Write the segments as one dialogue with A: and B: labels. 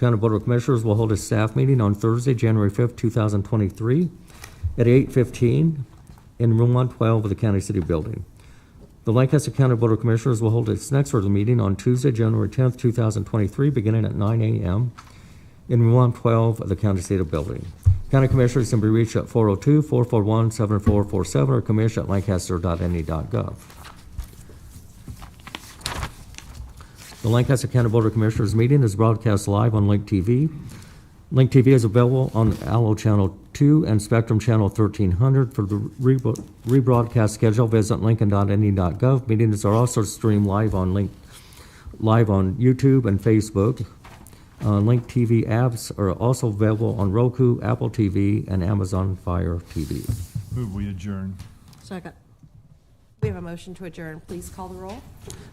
A: County Board of Commissioners will hold a staff meeting on Thursday, January 5th, 2023, at 8:15 in Room 112 of the County City Building. The Lancaster County Board of Commissioners will hold its next regular meeting on Tuesday, January 10th, 2023, beginning at 9 a.m. in Room 112 of the County City Building. County Commissioners can be reached at 402-441-7447 or E commish@lancaster.ne.gov. The Lancaster County Board of Commissioners meeting is broadcast live on Link TV. Link TV is available on Allo Channel 2 and Spectrum Channel 1300. For the rebro- rebroadcast schedule, visit lincoln.ne.gov. E Meetings are also streamed live on Link, live on YouTube and Facebook. Uh, Link TV apps are also available on Roku, Apple TV, and Amazon Fire TV.
B: Move we adjourn.
C: Second. We have a motion to adjourn. Please call the roll.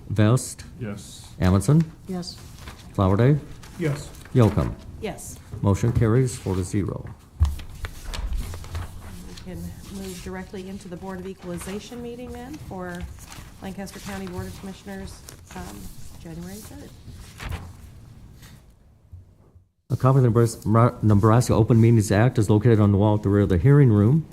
A: Vest,
B: Yes.
A: Amundson,
C: Yes.
A: Flowerday,
B: Yes.
A: Yocum.
C: Yes.
A: Motion carries four to zero.
C: We can move directly into the Board of Equalization meeting then for Lancaster County Board of Commissioners, um, January 3rd.
A: A copy of the Nebras- Mra- Nebraska Open Meetings Act is located on the wall at the rear of the hearing room.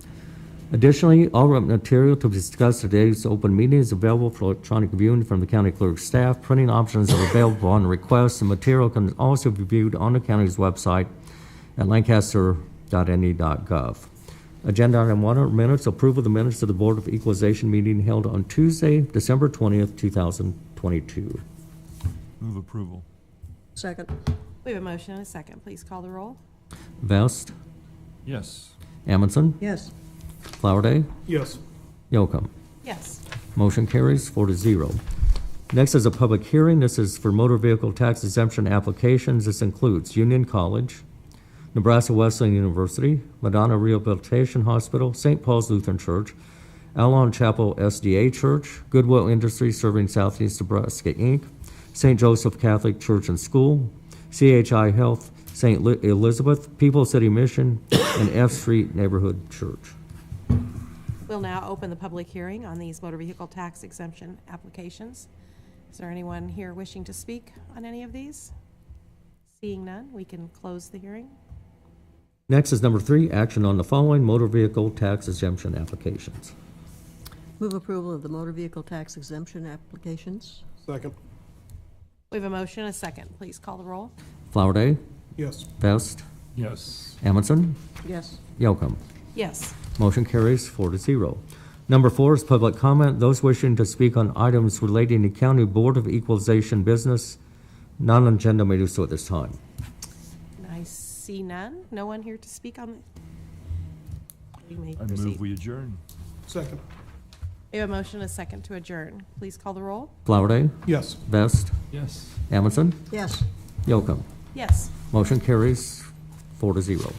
A: Additionally, all relevant material to be discussed at today's open meeting is available for electronic viewing from the county clerk's staff. Printing options are available on request, and material can also be viewed on the county's website at lancaster.ne.gov. E Agenda item one are minutes, approval of the minutes of the Board of Equalization meeting held on Tuesday, December 20th, 2022.
B: Move approval.
D: Second,
C: We have a motion and a second. Please call the roll.
A: Vest,
B: Yes.
A: Amundson,
D: yes.
A: Flowerday,
B: Yes.
A: Yocum.
C: Yes.
A: Motion carries four to zero. Next is a public hearing. This is for motor vehicle tax exemption applications. This includes Union College, Nebraska Wesleyan University, Madonna Rehabilitation Hospital, St. Paul's Lutheran Church, Alon Chapel SDA Church, Goodwill Industries Serving Southeast Nebraska, Inc., St. Joseph Catholic Church and School, CHI Health, St. Li- Elizabeth, People City Mission, and F Street Neighborhood Church.
C: We'll now open the public hearing on these motor vehicle tax exemption applications. Is there anyone here wishing to speak on any of these? Seeing none, we can close the hearing.
A: Next is number three, action on the following motor vehicle tax exemption applications.
D: Move approval of the motor vehicle tax exemption applications?
E: Second.
C: We have a motion and a second. Please call the roll.
A: Flowerday,
E: Yes.
A: Vest,
B: Yes.
A: Amundson,
D: Yes.
A: Yocum.
C: Yes.
A: Motion carries four to zero. Number four is public comment. Those wishing to speak on items relating to County Board of Equalization business, non-agenda may do so at this time.
C: I see none. No one here to speak on the. You may
B: I move
C: proceed.
B: we adjourn.
E: Second.
C: We have a motion, and a second to adjourn. Please call the roll.
A: Flowerday,
E: Yes.
A: Vest,
B: Yes.
A: Amundson,
D: Yes.
A: Yocum.
C: Yes.
A: Motion carries four to zero.